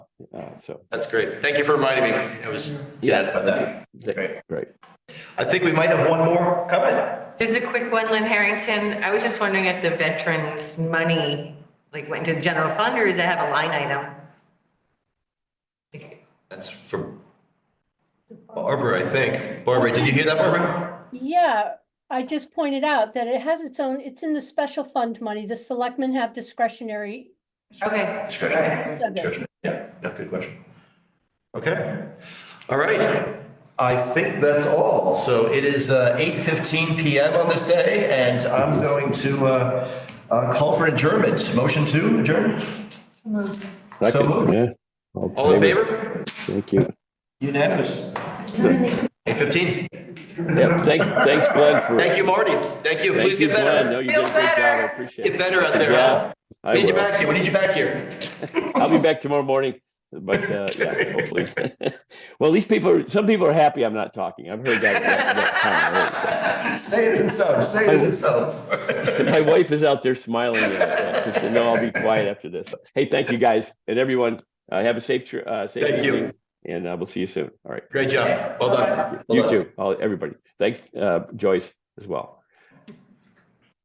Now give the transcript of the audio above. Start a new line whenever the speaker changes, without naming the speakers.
Uh, so,
That's great. Thank you for reminding me. I was, yes, about that. Great.
great.
I think we might have one more coming.
Just a quick one, Lynn Harrington. I was just wondering if the veterans' money, like, went into the general fund, or does it have a line item?
That's for Barbara, I think. Barbara, did you hear that, Barbara?
Yeah, I just pointed out that it has its own, it's in the special fund money. The selectmen have discretionary.
Okay.
Discretion. Discretion. Yeah, no, good question. Okay. All right. I think that's all. So it is uh, 8:15 PM on this day, and I'm going to uh, uh, call for adjournment. Motion to adjourn? So
Second,
moved.
yeah.
All in favor?
Thank you.
Unanimous. Eight fifteen.
Yeah, thanks, thanks Glenn for.
Thank you, Marty. Thank you.
thank
Please
you,
get
Glenn.
better.
No, you did a great job. I appreciate it.
Get better out there.
Yeah,
huh?
I
We need you
will.
back here. We need you back here.
I'll be back tomorrow morning, but, uh, yeah, hopefully. Well, these people, are some people are happy I'm not talking. I've heard that- that. that comment.
Say it in some, say it in some.
My wife is out there smiling. at us, She said, no, I'll be quiet after this. Hey, thank you guys and everyone. Uh, have a safe, tr- uh, safe
Thank you.
evening. And uh, we'll see you soon. All right.
Great job. Well done. Well
You
done.
too, all, everybody. Thanks, uh, Joyce as well.